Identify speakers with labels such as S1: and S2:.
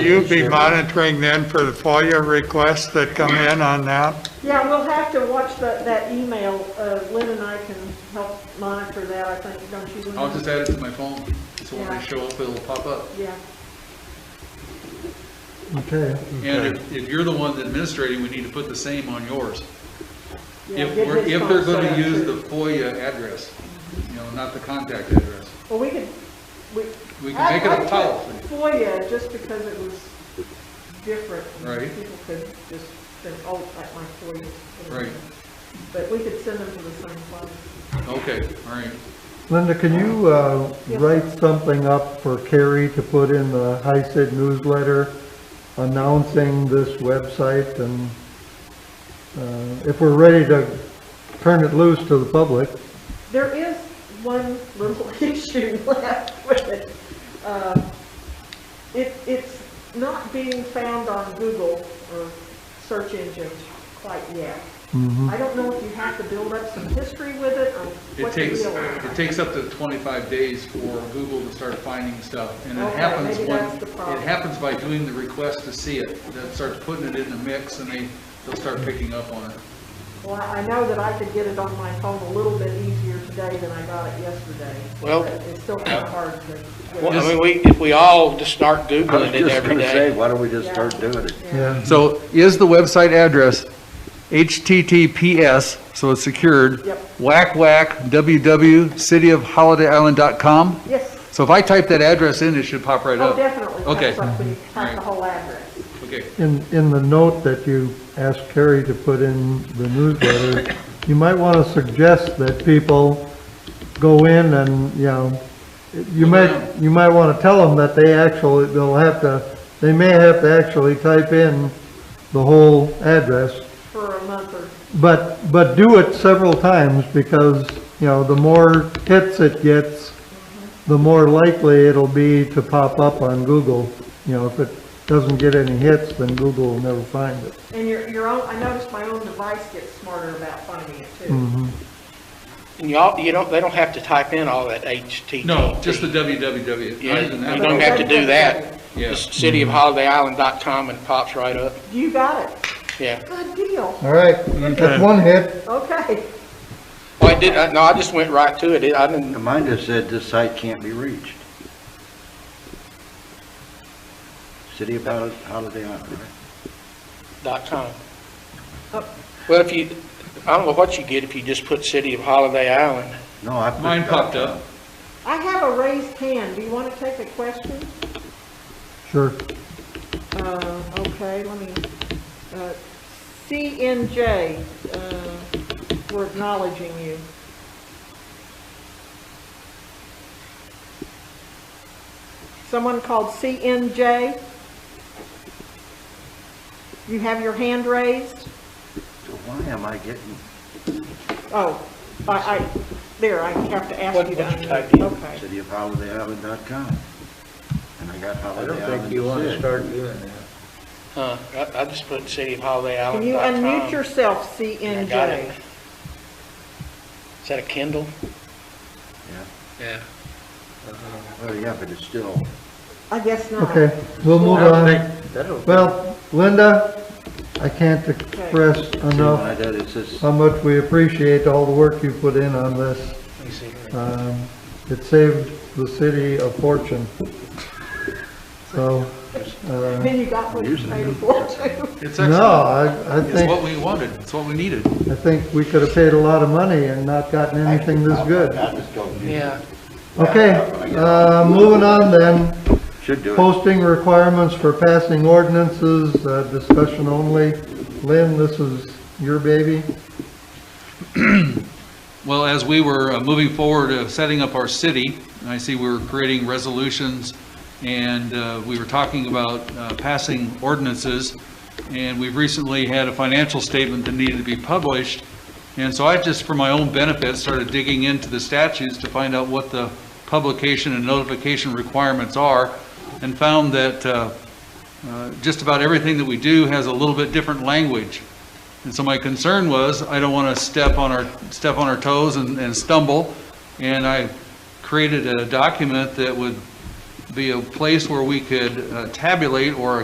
S1: You be monitoring then for the FOIA requests that come in on that?
S2: Yeah, we'll have to watch that, that email. Uh, Lynn and I can help monitor that, I think, don't you? Lynn?
S3: I'll just add it to my phone, so when they show up, it'll pop up.
S2: Yeah,
S4: Okay,
S3: And if, if you're the one administrating, we need to put the same on yours.
S2: yeah.
S3: If
S2: get
S3: we're,
S2: his
S3: if they're
S2: phone
S3: gonna
S2: set up,
S3: use the
S2: too.
S3: FOIA address, you know, not the contact address.
S2: Well, we could, we.
S3: We can make it
S2: I- I
S3: a
S2: put
S3: policy.
S2: FOIA, just because it was different. and
S3: Right.
S2: People could just think, oh, like my FOIA.
S3: Right.
S2: But we could send them to the same place.
S3: Okay, all right.
S4: Linda, can you uh,
S2: Yeah.
S4: write something up for Carrie to put in the HICID newsletter announcing this website and uh, if we're ready to turn it loose to the public,
S2: There is one little issue left with it. Uh, It, it's not being found on Google or search engines quite yet.
S5: Mm-hmm.
S2: I don't know if you have to build up some history with it or
S3: It
S2: what the
S3: takes,
S2: deal is.
S3: it takes up to 25 days for Google to start finding stuff, and it
S2: Okay,
S3: happens
S2: maybe
S3: when,
S2: that's the problem.
S3: it happens by doing the request to see it, that starts putting it in the mix, and they, they'll start picking up on it.
S2: Well, I know that I could get it on my phone a little bit easier today than I got it yesterday.
S5: Well-
S2: but It's still kind of hard to. get
S5: Well,
S2: it.
S5: I mean, we, if we all just start
S6: I was
S5: Googling it
S6: just
S5: every
S6: gonna say,
S5: day.
S6: why don't we just start doing it?
S4: yeah.
S3: So is the website address HTTPS, so it's secured?
S2: Yep.
S3: Whack whack www.cityofholidayisland.com?
S2: Yes,
S3: So if I type that address in, it should pop right
S2: oh,
S3: up?
S2: definitely.
S3: Okay.
S2: That's like we have the
S3: Alright.
S2: whole address.
S3: Okay,
S4: In, in the note that you asked Carrie to put in the newsletter, you might want to suggest that people go in and, you know, you might, you might want to tell them that they actually, they'll have to, they may have to actually type in the whole address,
S2: for a month or,
S4: but, but do it several times because, you know, the more hits it gets, the more likely it'll be to pop up on Google. You know, if it doesn't get any hits, then Google will never find it.
S2: and your, your own, I noticed my own device gets smarter about finding it too.
S5: And y'all, you don't, they don't have to type in all that HTTP.
S3: no, just the www.
S5: Yeah,
S3: Not even that.
S5: you don't have to do that.
S3: Yeah.
S5: Just cityofholidayisland.com and it pops right up,
S2: You got it.
S5: yeah.
S2: Good deal.
S4: All right, that's one hit.
S2: Okay.
S5: Well, I did, I- no, I just went right to it, I didn't,
S6: Mine just said this site can't be reached. City of Hol- Holiday Island, right?
S5: dot com. Well, if you, I don't know what you get if you just put City of Holiday Island.
S6: No, I. put
S3: Mine
S6: dot
S3: popped
S6: com.
S3: up.
S2: I have a raised hand. Do you want to take a question?
S4: Sure.
S2: Uh, okay, let me, uh, CNJ, uh, we're acknowledging you. Someone called CNJ? You have your hand raised?
S6: So Why am I getting,
S2: Oh, I, I, there, I have to ask
S5: What-
S2: you to
S5: what you
S2: unmute.
S5: typed in?
S2: Okay.
S6: City of Holiday Island dot com? And I got
S7: I
S6: Holiday
S7: don't
S6: Island.
S7: think you want to
S6: said.
S7: start doing that.
S5: Huh, I, I just put City of Holiday
S2: Can
S5: Island.
S2: you unmute yourself, CNJ?
S5: I got it. Is that a Kindle?
S6: Yeah.
S5: Yeah.
S6: Oh, yeah, but it's still,
S2: I guess not.
S4: Okay, we'll move
S7: I don't
S4: on.
S7: think, that'll.
S4: Well, Linda, I can't express
S6: see, when I
S4: enough
S6: did, it says,
S4: how much we appreciate all the work you put in on this.
S5: Let me see here.
S4: Um, It saved the city a fortune. So, uh,
S2: Then you got what you paid for too.
S3: It's
S4: no,
S3: excellent.
S4: I, I
S3: It's what
S4: think,
S3: we wanted, it's what we needed.
S4: I think we could have paid a lot of money and not gotten anything this good.
S6: I just don't, do-
S5: Yeah.
S4: Okay, uh, moving on then.
S6: should do it.
S4: Posting requirements for passing ordinances, uh, discussion only. Lynn, this is your baby.
S3: Well, as we were uh, moving forward, uh, setting up our city, and I see we were creating resolutions, and uh, we were talking about uh, passing ordinances, and we've recently had a financial statement that needed to be published, and so I just, for my own benefit, started digging into the statutes to find out what the publication and notification requirements are, and found that uh, uh, just about everything that we do has a little bit different language. And so my concern was, I don't want to step on our, step on our toes and and stumble. And I created a document that would be a place where we could uh, tabulate or